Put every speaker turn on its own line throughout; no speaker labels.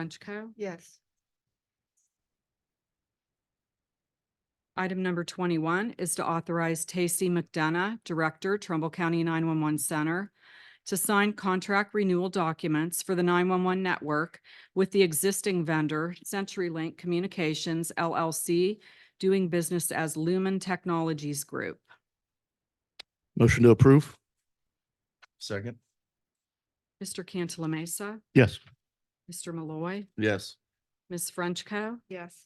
Frenchco.
Yes.
Item number twenty-one is to authorize Tacey McDonough, Director, Trumbull County nine-one-one Center, to sign contract renewal documents for the nine-one-one network with the existing vendor, CenturyLink Communications LLC, doing business as Lumen Technologies Group.
Motion to approve. Second.
Mr. Cantala Mesa,
Yes.
Mr. Malloy,
Yes.
Ms. Frenchco.
Yes.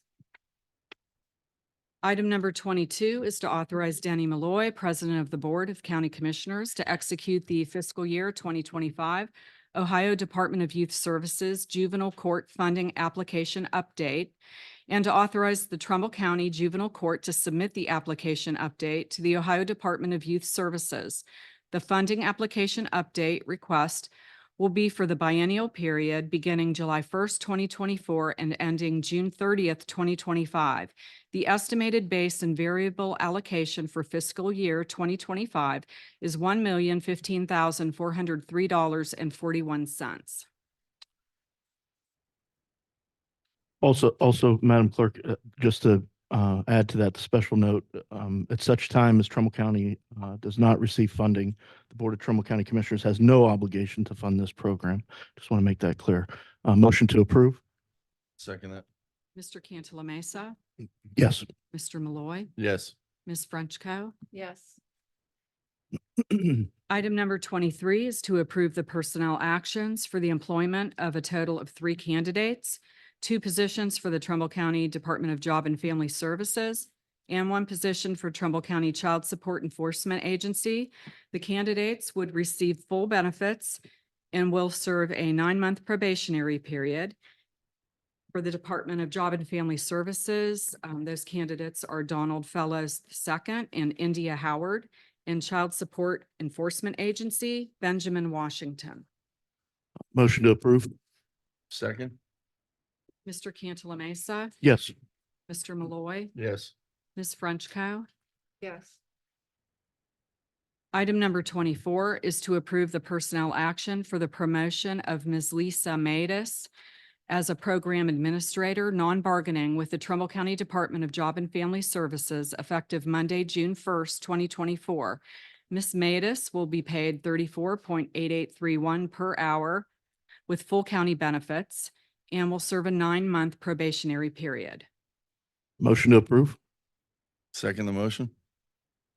Item number twenty-two is to authorize Danny Malloy, President of the Board of County Commissioners, to execute the fiscal year twenty twenty-five Ohio Department of Youth Services Juvenile Court Funding Application Update and to authorize the Trumbull County Juvenile Court to submit the application update to the Ohio Department of Youth Services. The funding application update request will be for the biennial period beginning July first, twenty twenty-four and ending June thirtieth, twenty twenty-five. The estimated base and variable allocation for fiscal year twenty twenty-five is one million fifteen thousand four hundred three dollars and forty-one cents.
Also, also, Madam Clerk, uh, just to uh, add to that special note, um, at such time as Trumbull County uh, does not receive funding, the Board of Trumbull County Commissioners has no obligation to fund this program. Just want to make that clear. Uh, Motion to approve.
Second that.
Mr. Cantala Mesa,
Yes.
Mr. Malloy,
Yes.
Ms. Frenchco.
Yes.
Item number twenty-three is to approve the personnel actions for the employment of a total of three candidates, two positions for the Trumbull County Department of Job and Family Services, and one position for Trumbull County Child Support Enforcement Agency. The candidates would receive full benefits and will serve a nine-month probationary period. For the Department of Job and Family Services, um, those candidates are Donald Fellows II and India Howard and Child Support Enforcement Agency, Benjamin Washington.
Motion to approve.
Second.
Mr. Cantala Mesa,
Yes.
Mr. Malloy,
Yes.
Ms. Frenchco.
Yes.
Item number twenty-four is to approve the personnel action for the promotion of Ms. Lisa Matus as a program administrator, non-bargaining with the Trumbull County Department of Job and Family Services effective Monday, June first, twenty twenty-four. Ms. Matus will be paid thirty-four point eight eight three one per hour with full county benefits and will serve a nine-month probationary period.
Motion to approve.
Second the motion.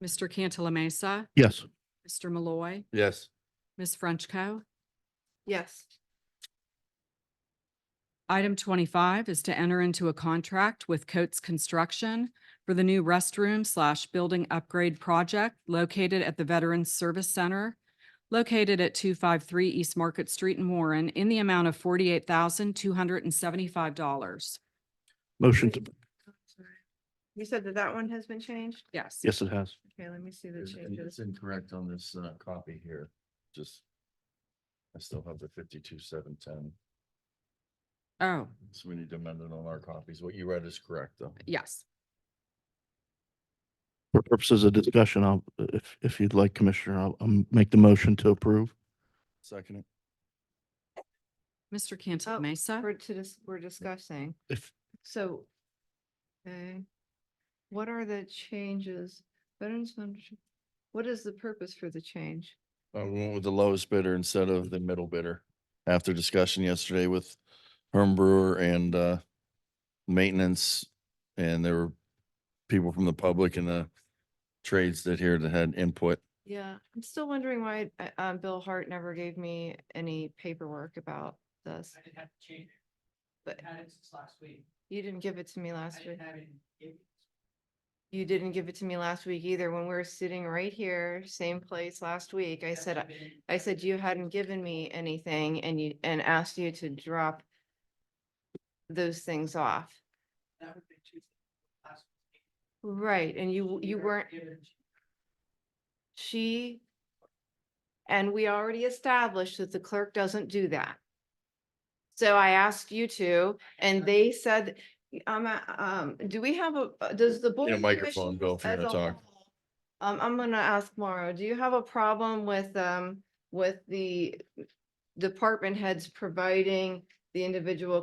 Mr. Cantala Mesa,
Yes.
Mr. Malloy,
Yes.
Ms. Frenchco.
Yes.
Item twenty-five is to enter into a contract with Coates Construction for the new restroom slash building upgrade project located at the Veterans Service Center, located at two five three East Market Street in Warren, in the amount of forty-eight thousand, two hundred and seventy-five dollars.
Motion to,
You said that that one has been changed?
Yes.
yes, it has.
Okay, let me see the
It's
changes.
incorrect on this uh copy here. Just. I still have the fifty-two, seven, ten.
Oh,
So we need to amend it on our copies. What you read is correct though.
yes.
For purposes of discussion, I'll, if, if you'd like, Commissioner, I'll, I'll make the motion to approve.
Second it.
Mr. Cantala
Oh,
Mesa,
We're to dis- we're discussing,
If,
so. Okay. What are the changes? Veterans, Foundation- what is the purpose for the change?
Uh, we went with the lowest bidder instead of the middle bidder. After discussion yesterday with Herm Brewer and uh maintenance. And there were people from the public and the trades that here that had input.
Yeah, I'm still wondering why, uh, um, Bill Hart never gave me any paperwork about this.
I didn't have to change it.
But-
I had it since last week.
You didn't give it to me
I
last week.
didn't have it. in-
You didn't give it to me last week either, when we were sitting right here, same place last week. I
That's
said,
been in-
I said you hadn't given me anything and you, and asked you to drop those things off.
That would be Tuesday. last week.
Right, and you, you weren't,
given-
she, and we already established that the clerk doesn't do that. So I asked you to, and they said, um, uh, um, do we have a, uh, does the board?
Need a
of
microphone, Bill, if you're
as
gonna
a
talk.
whole. Um, I'm gonna ask Mauro, do you have a problem with, um, with the department heads providing the individual